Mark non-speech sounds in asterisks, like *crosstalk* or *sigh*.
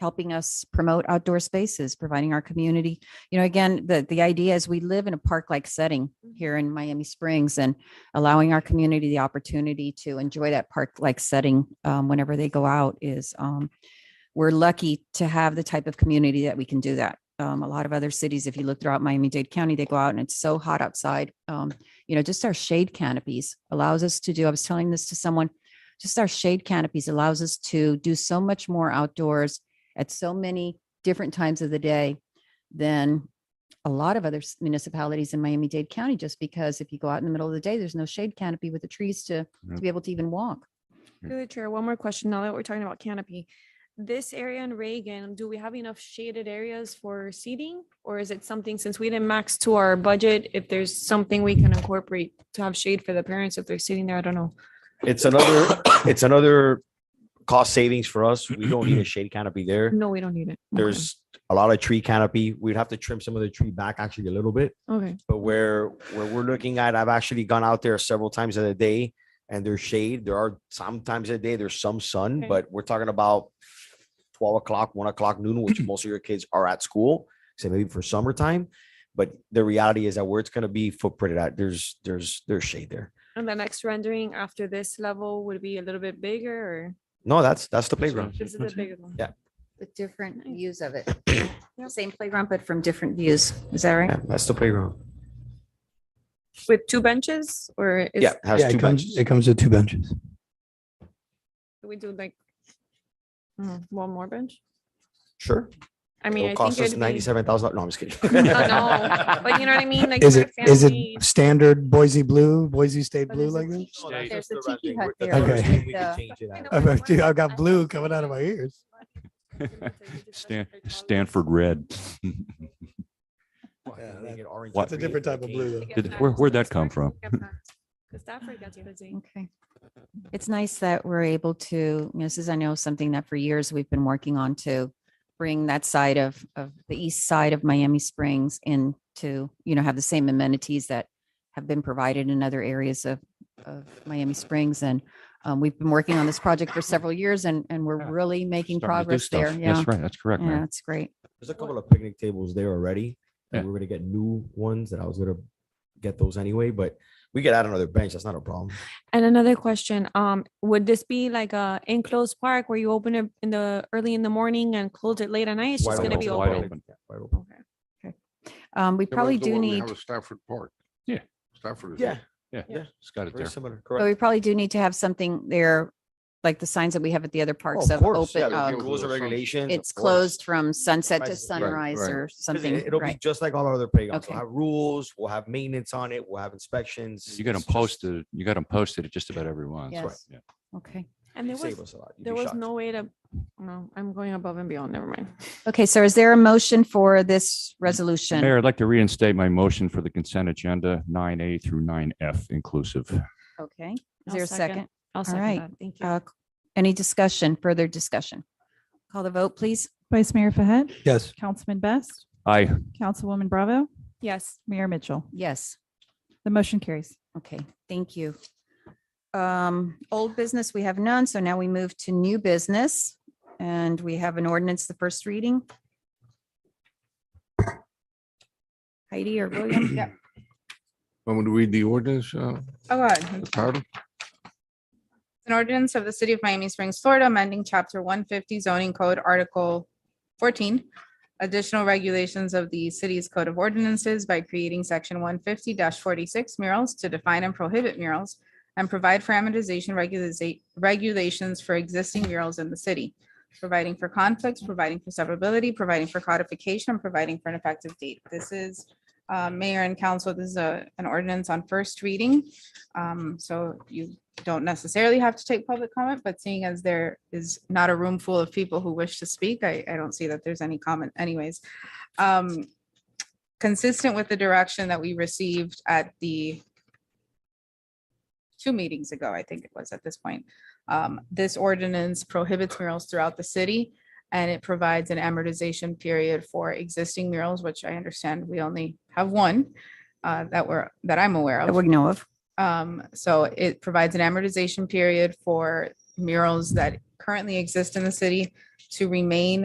helping us promote outdoor spaces, providing our community. You know, again, the, the idea is we live in a park-like setting here in Miami Springs and allowing our community the opportunity to enjoy that park-like setting um, whenever they go out is, um, we're lucky to have the type of community that we can do that. Um, a lot of other cities, if you look throughout Miami-Dade County, they go out and it's so hot outside. Um, you know, just our shade canopies allows us to do, I was telling this to someone, just our shade canopies allows us to do so much more outdoors at so many different times of the day than a lot of other s- municipalities in Miami-Dade County, just because if you go out in the middle of the day, there's no shade canopy with the trees to, Yeah. to be able to even walk. Yeah. Through the chair, one more question. Now that we're talking about canopy, this area in Reagan, do we have enough shaded areas for seating? Or is it something, since we didn't max to our budget, if there's something we can incorporate to have shade for the parents if they're sitting there? I don't know. It's another, it's another cost savings for us. We don't need a shade canopy there. No, we don't need it. Okay. There's a lot of tree canopy. We'd have to trim some of the tree back actually a little bit. Okay, But where, where we're looking at, I've actually gone out there several times in a day and there's shade. There are sometimes a day, there's some sun, Okay. but we're talking about twelve o'clock, one o'clock noon, which most of your kids are at school, so maybe for summertime. But the reality is that where it's gonna be footprinted at, there's, there's, there's shade there. and the next rendering after this level would be a little bit bigger or? No, that's, that's the playground. This is the bigger one. With different Nice. views of it. Same playground, but from different views. Is that right? Yeah, that's the playground. With two benches or? is- Yeah, it has Yeah, two it comes, benches. it comes with two benches. We do like mm, one more bench? Sure. I mean, It'll I think cost us it'd be. ninety-seven thousand. No, I'm just kidding. *laughs* I know, But you know what I mean? Like Is for it, is family- it standard Boise blue, Boise State blue like this? There's a tiki hut there. that's with the the- I've got- *laughs* dude, I've got blue coming out of my ears. *laughs* Stan- Stanford Red. *laughs* What? It's a different type of blue though. Did- where- where'd that come from? Stafford gets busy. Okay. It's nice that we're able to, you know, this is, I know, something that for years we've been working on to bring that side of, of the east side of Miami Springs in to, you know, have the same amenities that have been provided in other areas of, of Miami Springs. And um, we've been working on this project for several years and, and we're Yeah. really making Starting to progress do there. stuff. Yeah. That's right. That's correct, Yeah, man. it's great. There's a couple of picnic tables there already. Yeah. And we're gonna get new ones that I was gonna get those anyway, but we could add another bench. That's not a problem. And another question, um, would this be like a enclosed park where you open it in the early in the morning and close it late at night? It's Wide just gonna be wide open. open. Yeah, wide open. Okay. Um, we Yeah, probably where's the do one we need. have at Stafford Park. Yeah. Stafford is. Yeah, Yeah, Yeah. it's got it very there. But similar, we correct. probably do need to have something there, like the signs that we have at the other parks Oh, of Of course, yeah, open, there'll uh, be rules and regulations. of it's course. closed from sunset to Sunrise, right, sunrise right. or Because it- something, It'll be right? just like all our other playgrounds. We'll Okay. have rules, we'll have maintenance on it, we'll have inspections. You got them It's just- posted, you got them posted at just about every one. Yes. That's right. Yeah. Okay. And there it'd save was, us a lot. You'd there be was shocked. no way to, no, I'm going above and beyond, never mind. Okay, so is there a motion for this resolution? Mayor, I'd like to reinstate my motion for the consent agenda nine A through nine F inclusive. Okay, is I'll there a second? I'll second right. that, thank you. Uh, Any discussion, further discussion? Call the vote, please. Vice Mayor Fahed, Yes. Councilman Best, Aye. Councilwoman Bravo, Yes, Mayor Mitchell. Yes, The motion carries. okay, thank you. Um, old business, we have none, so now we move to new business. And we have an ordinance, the first reading. Heidi or William? Yeah. Want me to read the ordinance, uh, Oh, God. the title? An ordinance of the City of Miami Springs, Florida, amending Chapter 150 zoning code, Article 14, additional regulations of the city's code of ordinances by creating Section 150-46 murals to define and prohibit murals and provide for amortization regulariza- regulations for existing murals in the city, providing for conflicts, providing for severability, providing for codification, and providing for an effective date. This is, uh, Mayor and Council, this is a- an ordinance on first reading. Um, So you don't necessarily have to take public comment, but seeing as there is not a room full of people who wish to speak, I, I don't see that there's any comment anyways. Um, Consistent with the direction that we received at the two meetings ago, I think it was at this point. um, This ordinance prohibits murals throughout the city and it provides an amortization period for existing murals, which I understand we only have one uh, that we're, that I'm aware of. That we know of. Um, so it provides an amortization period for murals that currently exist in the city to remain